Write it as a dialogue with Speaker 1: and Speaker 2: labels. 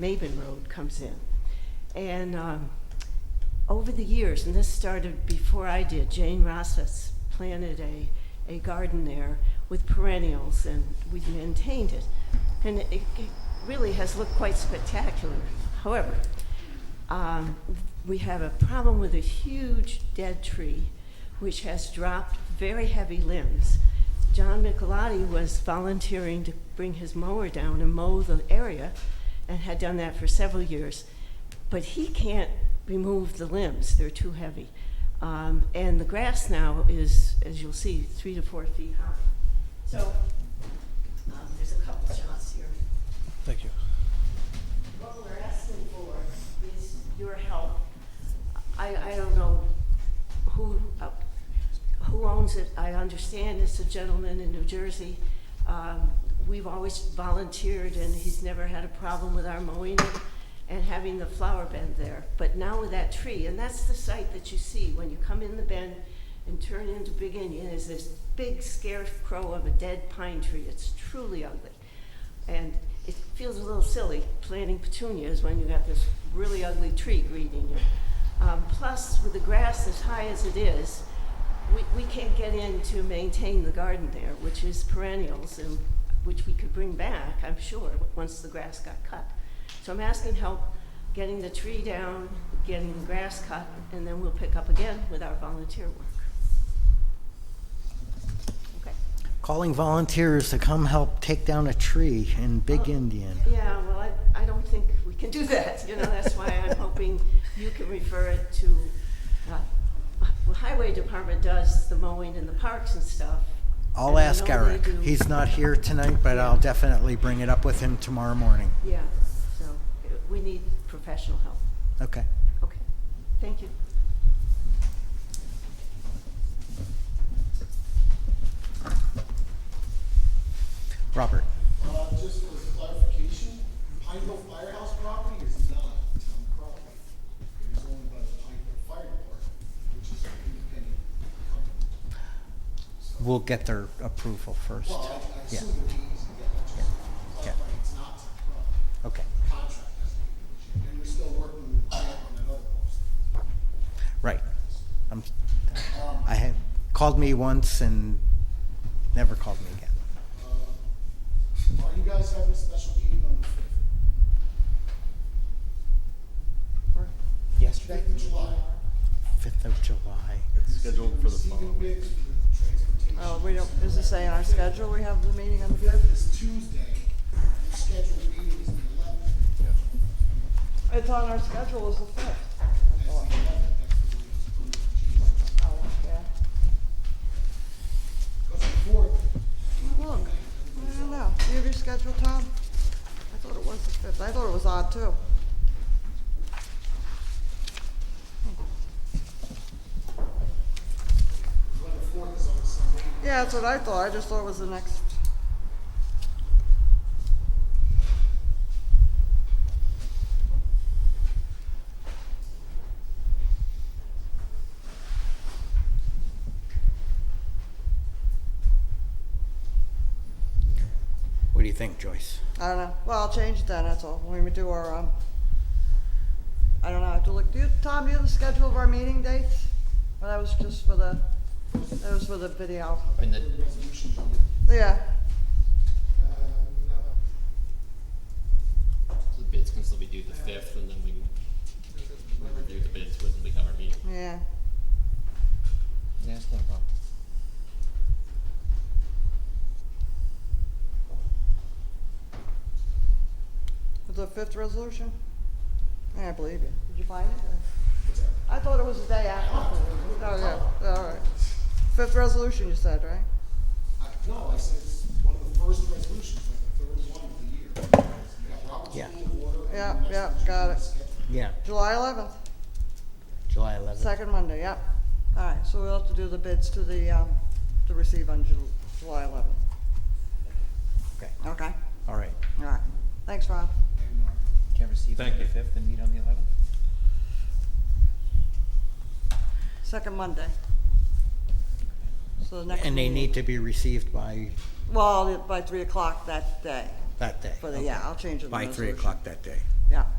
Speaker 1: Maven Road comes in. And um, over the years, and this started before I did, Jane Rosses planted a, a garden there with perennials, and we've maintained it. And it, it really has looked quite spectacular. However, um, we have a problem with a huge dead tree which has dropped very heavy limbs. John Michelotti was volunteering to bring his mower down and mow the area and had done that for several years. But he can't remove the limbs, they're too heavy. Um, and the grass now is, as you'll see, three to four feet high. So um, there's a couple shots here.
Speaker 2: Thank you.
Speaker 1: What we're asking for is your help. I, I don't know who, uh, who owns it. I understand it's a gentleman in New Jersey. Um, We've always volunteered, and he's never had a problem with our mowing it and having the flower bed there. But now with that tree, and that's the sight that you see when you come in the bend and turn into Big Indian, is this big scarecrow of a dead pine tree. It's truly ugly. And it feels a little silly planting petunias when you got this really ugly tree greeting you. Um, plus, with the grass as high as it is, we, we can't get in to maintain the garden there, which is perennials and which we could bring back, I'm sure, once the grass got cut. So I'm asking help getting the tree down, getting the grass cut, and then we'll pick up again with our volunteer work. Okay.
Speaker 3: Calling volunteers to come help take down a tree in Big
Speaker 1: Oh,
Speaker 3: Indian.
Speaker 1: Yeah, well, I, I don't think we can do that, you know, that's why I'm hoping you can refer it to, uh, well, Highway Department does the mowing in the parks and stuff.
Speaker 3: I'll
Speaker 1: and I
Speaker 3: ask
Speaker 1: know they
Speaker 3: Eric.
Speaker 1: do-
Speaker 3: He's not here tonight, but I'll definitely bring it up with him tomorrow morning.
Speaker 1: Yeah, so uh, we need professional help.
Speaker 3: Okay.
Speaker 1: Okay, thank you.
Speaker 3: Robert.
Speaker 4: Uh, just for clarification, Pineville Firehouse property is not town property. It is owned by the Pineville Fire Department, which is an independent company. So,
Speaker 3: We'll get their approval first.
Speaker 4: well, I I
Speaker 3: Yeah,
Speaker 4: assume it'd be easy to get, but just
Speaker 3: Yeah.
Speaker 4: clarifying, it's not town property.
Speaker 3: okay.
Speaker 4: Contract has to be issued, and we're still working with Grant on that other post.
Speaker 3: Right. I'm,
Speaker 4: Um,
Speaker 3: I had, called me once and never called me again.
Speaker 4: uh, Are you guys having a special meeting on the fifth?
Speaker 5: Uh,
Speaker 3: Yesterday?
Speaker 4: Fifth of July?
Speaker 3: Fifth of July.
Speaker 6: Scheduled for the following
Speaker 4: Receiving
Speaker 6: week.
Speaker 4: bids for transportation.
Speaker 5: Oh, we don't, does it say on our schedule we have the meeting on the
Speaker 4: The
Speaker 5: fifth?
Speaker 4: fifth is Tuesday, your scheduled meeting is the eleventh,
Speaker 5: It's on our schedule as the fifth.
Speaker 4: that's the eleventh, that's the one that's approved for Jesus.
Speaker 5: Oh, okay.
Speaker 4: Because the fourth,
Speaker 5: Look, I don't know. Do you have your schedule, Tom? I thought it was the fifth. I thought it was odd too.
Speaker 4: when the fourth is on Sunday,
Speaker 5: Yeah, that's what I thought. I just thought it was the next.
Speaker 3: What do you think, Joyce?
Speaker 5: I don't know. Well, I'll change it then, that's all. When we do our, um, I don't know, I have to look. Do you, Tom, do you have the schedule of our meeting dates? Well, that was just for the, that was for the video.
Speaker 7: And the,
Speaker 4: resolution, uh,
Speaker 5: Yeah,
Speaker 4: no,
Speaker 7: the bids can still be due the fifth, and then we can review the bids when we have our meeting.
Speaker 5: yeah.
Speaker 7: Yeah, that's no problem.
Speaker 5: Was the fifth resolution? Yeah, I believe you. Did you find it? or- I thought it was the day after. Oh, yeah, all right. Fifth resolution, you said, right?
Speaker 4: I, no, I said it's one of the first resolutions, like the third one of the year. You got Robert's
Speaker 3: Yeah.
Speaker 4: rule of order. and
Speaker 5: Yeah,
Speaker 4: the next
Speaker 5: yeah,
Speaker 4: one's
Speaker 5: got it.
Speaker 4: scheduled.
Speaker 3: Yeah,
Speaker 5: July eleventh,
Speaker 3: July 11th.
Speaker 5: second Monday, yep. All right, so we'll have to do the bids to the, um, to receive on Ju- July eleventh.
Speaker 3: Okay,
Speaker 5: Okay,
Speaker 3: all right.
Speaker 5: all right. Thanks,
Speaker 4: And,
Speaker 5: Rob.
Speaker 4: uh,
Speaker 8: Can you receive on the fifth and meet on the eleventh?
Speaker 5: Second Monday. So the next.
Speaker 3: And they
Speaker 5: meeting-
Speaker 3: need to be received by
Speaker 5: Well, by three o'clock that day.
Speaker 3: that day.
Speaker 5: For the, yeah, I'll change it. in the
Speaker 3: By three
Speaker 5: resolution.
Speaker 3: o'clock that day.